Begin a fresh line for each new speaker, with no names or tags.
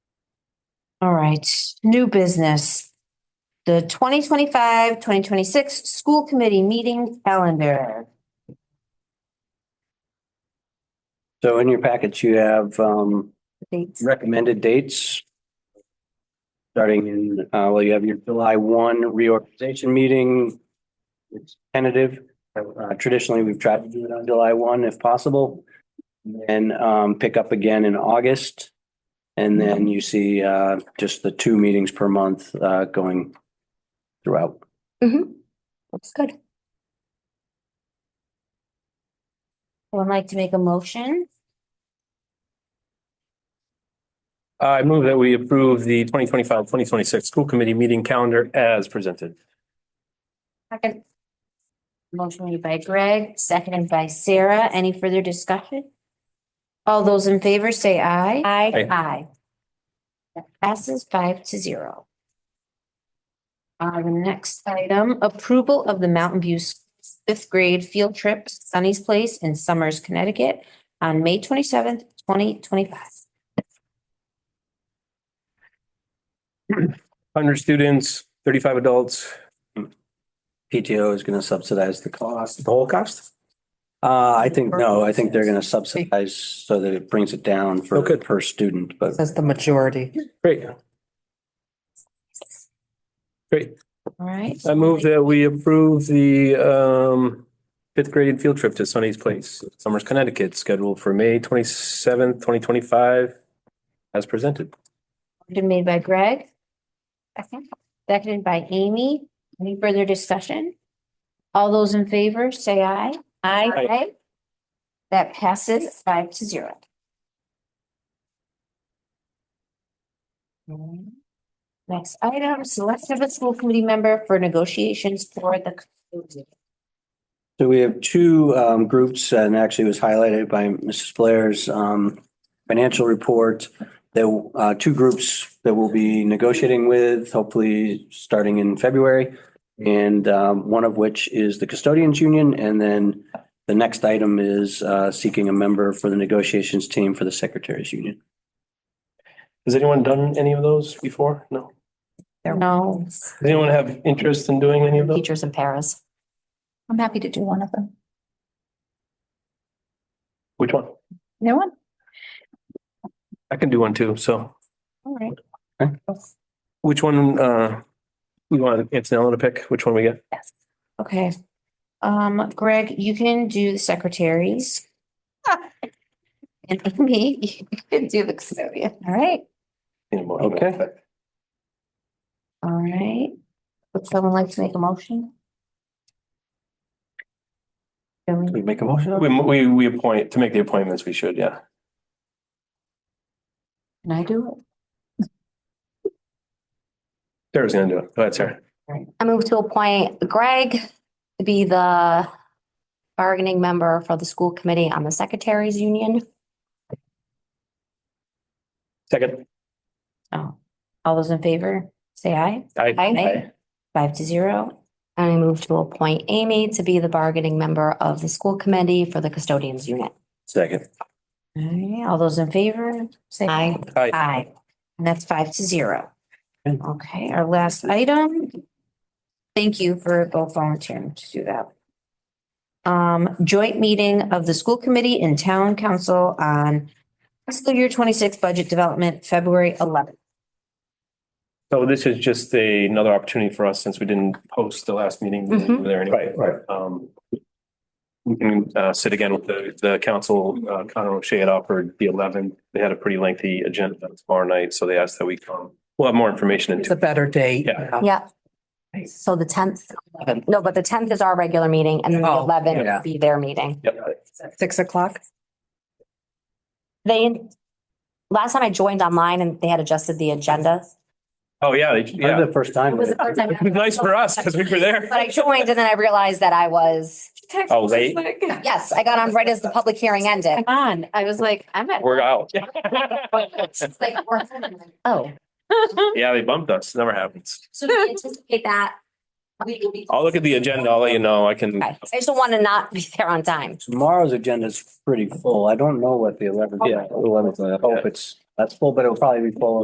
All right, new business. The 2025-2026 school committee meeting calendar.
So in your packets, you have um
Dates.
recommended dates. Starting in, uh, well, you have your July one reorganization meeting. It's tentative. Uh, traditionally, we've tried to do it on July one if possible. And um, pick up again in August. And then you see uh, just the two meetings per month uh, going throughout.
Mm-hmm. Looks good. Would like to make a motion?
Uh, I move that we approve the 2025-2026 school committee meeting calendar as presented.
Second. Motion made by Greg, seconded by Sarah. Any further discussion? All those in favor say aye.
Aye.
Aye. That passes five to zero. Uh, the next item, approval of the Mountain View fifth grade field trip, Sunny's Place in Summers, Connecticut on May twenty-seventh, twenty twenty-five.
Hundred students, thirty-five adults,
PTO is going to subsidize the cost.
the whole cost?
Uh, I think, no, I think they're going to subsidize so that it brings it down for
Okay.
per student, but.
Says the majority.
Great. Great.
All right.
I move that we approve the um fifth grade field trip to Sunny's Place, Summers, Connecticut, scheduled for May twenty-seventh, twenty twenty-five as presented.
Motion made by Greg. Second. Seconded by Amy. Any further discussion? All those in favor, say aye.
Aye.
That passes five to zero. Next item, selection of a school committee member for negotiations for the.
So we have two um groups, and actually it was highlighted by Mrs. Blair's um financial report. There uh two groups that we'll be negotiating with, hopefully starting in February. And um one of which is the custodians union, and then the next item is uh seeking a member for the negotiations team for the secretaries union.
Has anyone done any of those before? No.
No,
Does anyone have interest in doing any of those?
teachers in Paris. I'm happy to do one of them.
Which one?
No one?
I can do one too, so.
all right.
Which one, uh, we want Antonella to pick, which one we get?
Yes.
Okay. Um, Greg, you can do the secretaries. And Amy, you can do the custodian. All right.
Okay.
All right. Would someone like to make a motion? Can we-
We make a motion?
We, we, we appoint, to make the appointments, we should, yeah.
Can I do it?
Sarah's gonna do it. Go ahead, Sarah.
I move to appoint Greg to be the bargaining member for the school committee on the secretaries union.
Second.
Oh, all those in favor, say aye.
Aye.
Aye. Five to zero.
And I move to appoint Amy to be the bargaining member of the school committee for the custodians unit.
Second.
All right, all those in favor, say aye.
Aye.
Aye.
Aye. And that's five to zero.
Okay.
Okay, our last item. Thank you for both volunteering to do that. Um, joint meeting of the school committee and town council on fiscal year twenty-six budget development, February eleventh.
So this is just a, another opportunity for us, since we didn't post the last meeting we didn't do there anyway.
right.
Um, we can, uh, sit again with the, the council, uh, Conor O'Shea had offered the eleventh. They had a pretty lengthy agenda tomorrow night, so they asked that we come. We'll have more information in
It's
two.
a better date.
Yeah.
Yeah. So the tenth, no, but the tenth is our regular meeting and then the
Oh,
eleventh
yeah.
will be their meeting.
Yep.
Six o'clock?
They, last time I joined online and they had adjusted the agenda.
Oh, yeah, they-
Yeah,
yeah.
the first time.
It was the first time.
It was Nice for us, because we were there.
But I joined and then I realized that I was,
Oh, late?
yes, I got on right as the public hearing ended.
On, I was like, I'm at.
We're out.
Like, we're- Oh,
Yeah, they bumped us. Never happens.
so we anticipate that. we will be-
I'll look at the agenda. I'll let you know. I can,
Okay. I just don't want to not be there on time.
Tomorrow's agenda is pretty full. I don't know what the eleventh, yeah, eleventh, I hope it's, that's full, but it'll probably be full